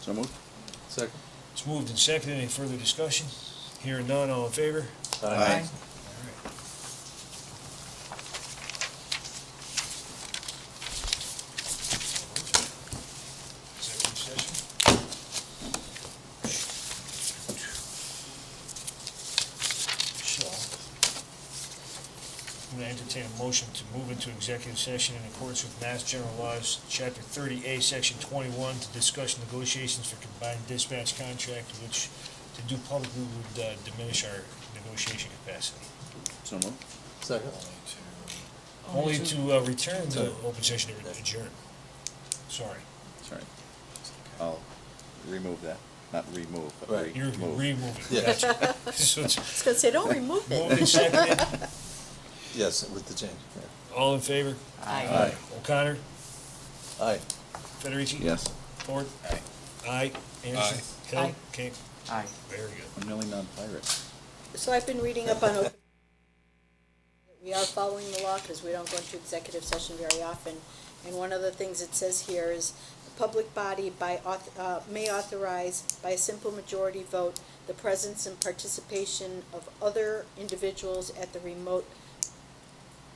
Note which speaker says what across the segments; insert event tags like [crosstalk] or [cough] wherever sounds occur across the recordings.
Speaker 1: So moved.
Speaker 2: Second.
Speaker 3: It's moved and seconded. Any further discussion? Hearing none, all in favor?
Speaker 1: Aye.
Speaker 3: Executive session. So, I'm going to entertain a motion to move into executive session in accordance with Mass General Laws, Chapter 30A, Section 21, to discuss negotiations for combined dispatch contract, which to do publicly would uh, diminish our negotiation capacity.
Speaker 1: So moved.
Speaker 2: Second.
Speaker 1: Oh,
Speaker 3: Only to uh, return to open session to adjourn. Sorry,
Speaker 1: Sorry. I'll remove that. Not remove, but
Speaker 2: Right.
Speaker 3: you're
Speaker 1: remove.
Speaker 3: removing.
Speaker 2: Yeah.
Speaker 1: [laughs]
Speaker 3: So it's
Speaker 4: was gonna say, don't remove it.
Speaker 3: moved and seconded.
Speaker 2: Yes, with the change.
Speaker 3: All in favor?
Speaker 1: Aye.
Speaker 3: O'Connor?
Speaker 2: yeah. Aye.
Speaker 3: Federici?
Speaker 1: Yes.
Speaker 3: Ford? Aye. Aye. Anderson? Hill?
Speaker 4: Aye.
Speaker 3: King?
Speaker 5: Aye.
Speaker 3: Very good.
Speaker 1: I'm really not pirate.
Speaker 4: So I've been reading up on open. We are following the law because we don't go into executive session very often. And one of the things it says here is, the public body by, auth- uh, may authorize by a simple majority vote the presence and participation of other individuals at the remote,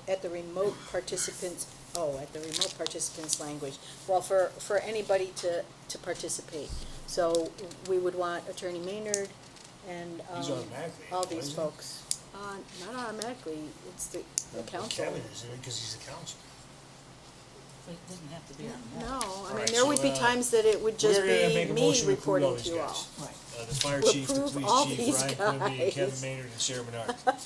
Speaker 4: at the remote participants, oh, at the remote participants language. Well, for, for anybody to, to participate. So we would want Attorney Maynard and, um,
Speaker 3: He's automatically,
Speaker 4: all these
Speaker 3: isn't he?
Speaker 4: folks. Uh, not automatically, it's the, the council.
Speaker 3: Kevin is in it because he's the council.
Speaker 5: But it doesn't have to be on that.
Speaker 4: No, Oh, I mean,
Speaker 3: Alright,
Speaker 4: there would be
Speaker 3: so, uh,
Speaker 4: times that it would just
Speaker 3: We're gonna
Speaker 4: be
Speaker 3: make a
Speaker 4: me
Speaker 3: motion to approve all
Speaker 4: reporting
Speaker 3: these
Speaker 4: to you all.
Speaker 3: guys.
Speaker 5: Right.
Speaker 3: Uh, The fire
Speaker 4: We'll
Speaker 3: chief, the
Speaker 4: approve all
Speaker 3: police
Speaker 4: these
Speaker 3: chief, Ryan Quimby, and Kevin
Speaker 4: guys.
Speaker 3: Maynard, and Sarah Menard.
Speaker 4: [laughs]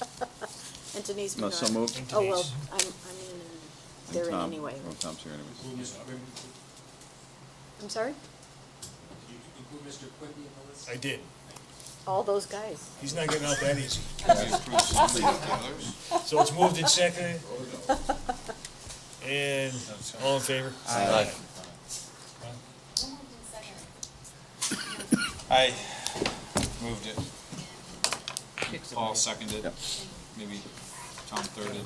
Speaker 4: And Denise
Speaker 1: No,
Speaker 4: Bernard.
Speaker 1: so moved.
Speaker 3: And
Speaker 4: Oh, well,
Speaker 3: Denise.
Speaker 4: I'm, I'm in, they're in
Speaker 1: Tom-
Speaker 4: anyway.
Speaker 1: Oh, Tom's here anyways.
Speaker 4: I'm sorry?
Speaker 3: I did.
Speaker 4: All those guys.
Speaker 3: He's not getting out that easy. So it's moved and seconded. And all in favor?
Speaker 2: Aye.
Speaker 6: I moved it. Paul seconded,
Speaker 1: Yep.
Speaker 6: maybe Tom thirded.